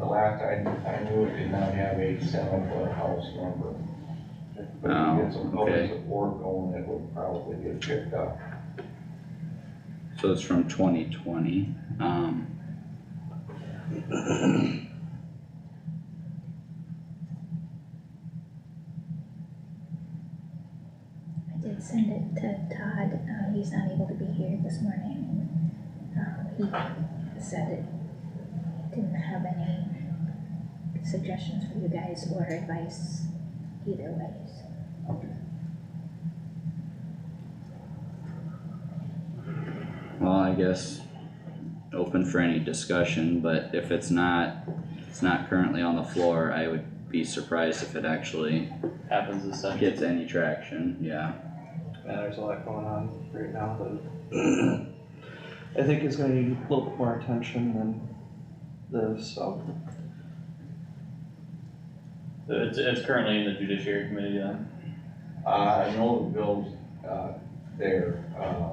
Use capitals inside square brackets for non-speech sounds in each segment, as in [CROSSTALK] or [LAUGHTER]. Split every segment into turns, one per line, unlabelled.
last, I, I knew it did not have a seven foot house number. But if you get some
Oh,
public
okay.
support going, it would probably get picked up.
So it's from twenty twenty, um.
I did send it to Todd, uh, he's not able to be here this morning, and, um, he said it didn't have any suggestions for you guys or advice either ways.
Well, I guess open for any discussion, but if it's not, it's not currently on the floor, I would be surprised if it actually
happens this Sunday.
gets any traction, yeah.
Yeah, there's a lot going on right now that I think is gonna need a little bit more attention than this, so. It's, it's currently in the judiciary committee, then.
Uh, I know the bills, uh, they're, uh,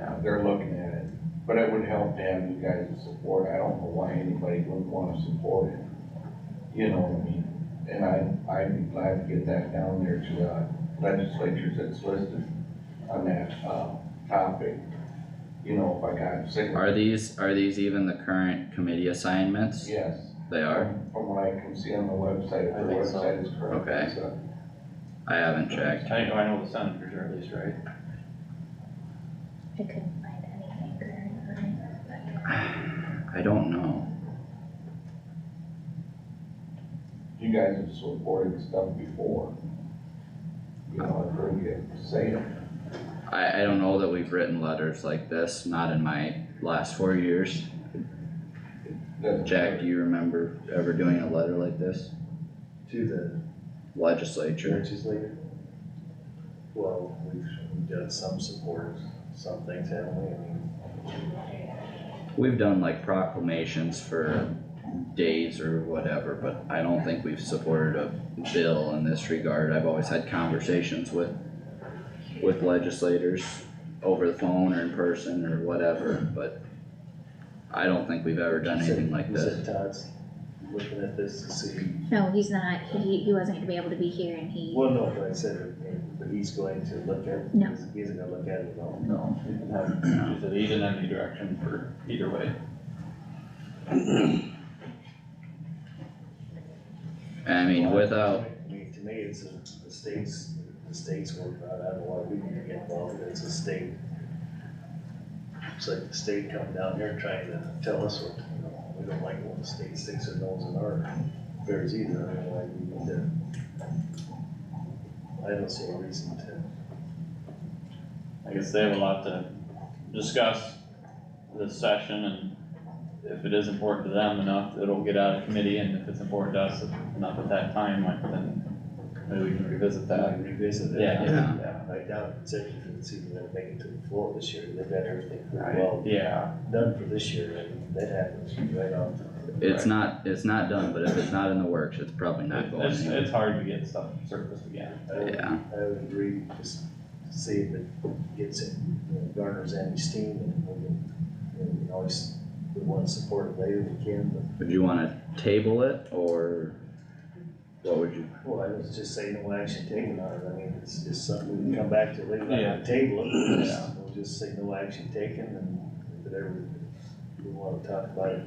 uh, they're looking at it, but it would help to have you guys' support, I don't know why anybody wouldn't wanna support it. You know what I mean? And I, I'd be glad to get that down there to, uh, legislatures that's listed on that, uh, topic. You know, if I got sick.
Are these, are these even the current committee assignments?
Yes.
They are?
From what I can see on the website, if
I
the
think so.
website is correct.
Okay.
it's, uh,
I haven't checked. [SIGHS]
I know, I know the senators are at least, right?
I couldn't find anything current on it, but
I don't know.
you guys have supported stuff before. You know, I've heard you say it.
I, I don't know that we've written letters like this, not in my last four years.
Doesn't-
Jack, do you remember ever doing a letter like this?
to the
Legislature?
legislature? Well, we've, we've done some support, some things, haven't we? I mean,
We've done like proclamations for days or whatever, but I don't think we've supported a bill in this regard. I've always had conversations with, with legislators over the phone or in person or whatever, but I don't think we've ever done anything like
was
this.
it Todd's looking at this to see,
No, he's not, he, he wasn't gonna be able to be here and he,
well, no, but I said, but he's going to look at,
No.
he's, he's gonna look at it all.
No.
He said he didn't have any direction for either way.
I mean, without,
I mean, to me, it's a, the states, the states were brought out, why we need to get involved, it's a state. It's like the state coming down here trying to tell us what, you know, we don't like what the state sticks their nose in our affairs either, I don't know why we need to. I don't see a reason to.
I guess they have a lot to discuss this session and if it is important to them enough, it'll get out of committee and if it's important to us enough at that time, like then maybe we can revisit that.
we Revisit it.
Yeah.
Yeah.
Right now, executive is even gonna make it to the floor this year, they've got everything pretty well
Yeah,
done for this year, and that happens right off.
it's not, it's not done, but if it's not in the works, it's probably not going
it's,
anywhere.
it's hard to get stuff surfaced again.
I would-
Yeah.
I would agree, just see if it gets it, you know, garners any steam and we can, you know, we can always, we wanna support it later if we can, but.
Would you wanna table it, or what would you,
Well, I was just saying, no action taken on it, I mean, it's just something we can come back to later,
Yeah.
on the table, it, we'll
Yeah.
just- we'll just say no action taken and if it ever, we wanna talk about it.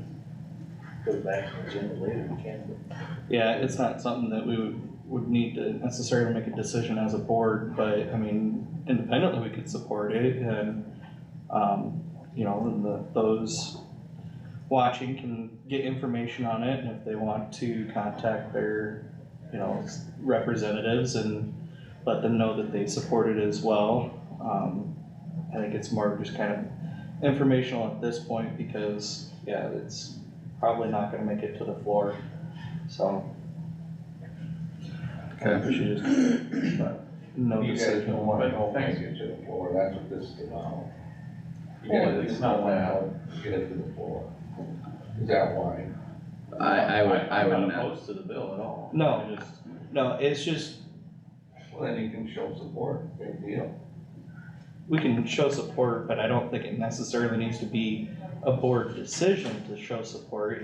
Put it back on the agenda later, we can, but
Yeah, it's not something that we would, would need to necessarily make a decision as a board, but I mean, independently, we could support it and, um, you know, then the, those watching can get information on it and if they want to contact their, you know, representatives and let them know that they support it as well. Um, I think it's more of just kind of informational at this point because, yeah, it's probably not gonna make it to the floor, so.
Okay.
We should just, but no
You guys
decision.
don't wanna
But
help
thanks.
us get to the floor, that's what this is about. You
Well,
guys
it's
just
not
don't wanna
that.
help get it to the floor. Is that why?
I, I would, I
I'm
would
not
not,
opposed to the bill at all.
No.
I just-
No, it's just,
Well, then you can show support, big deal.
we can show support, but I don't think it necessarily needs to be a board decision to show support.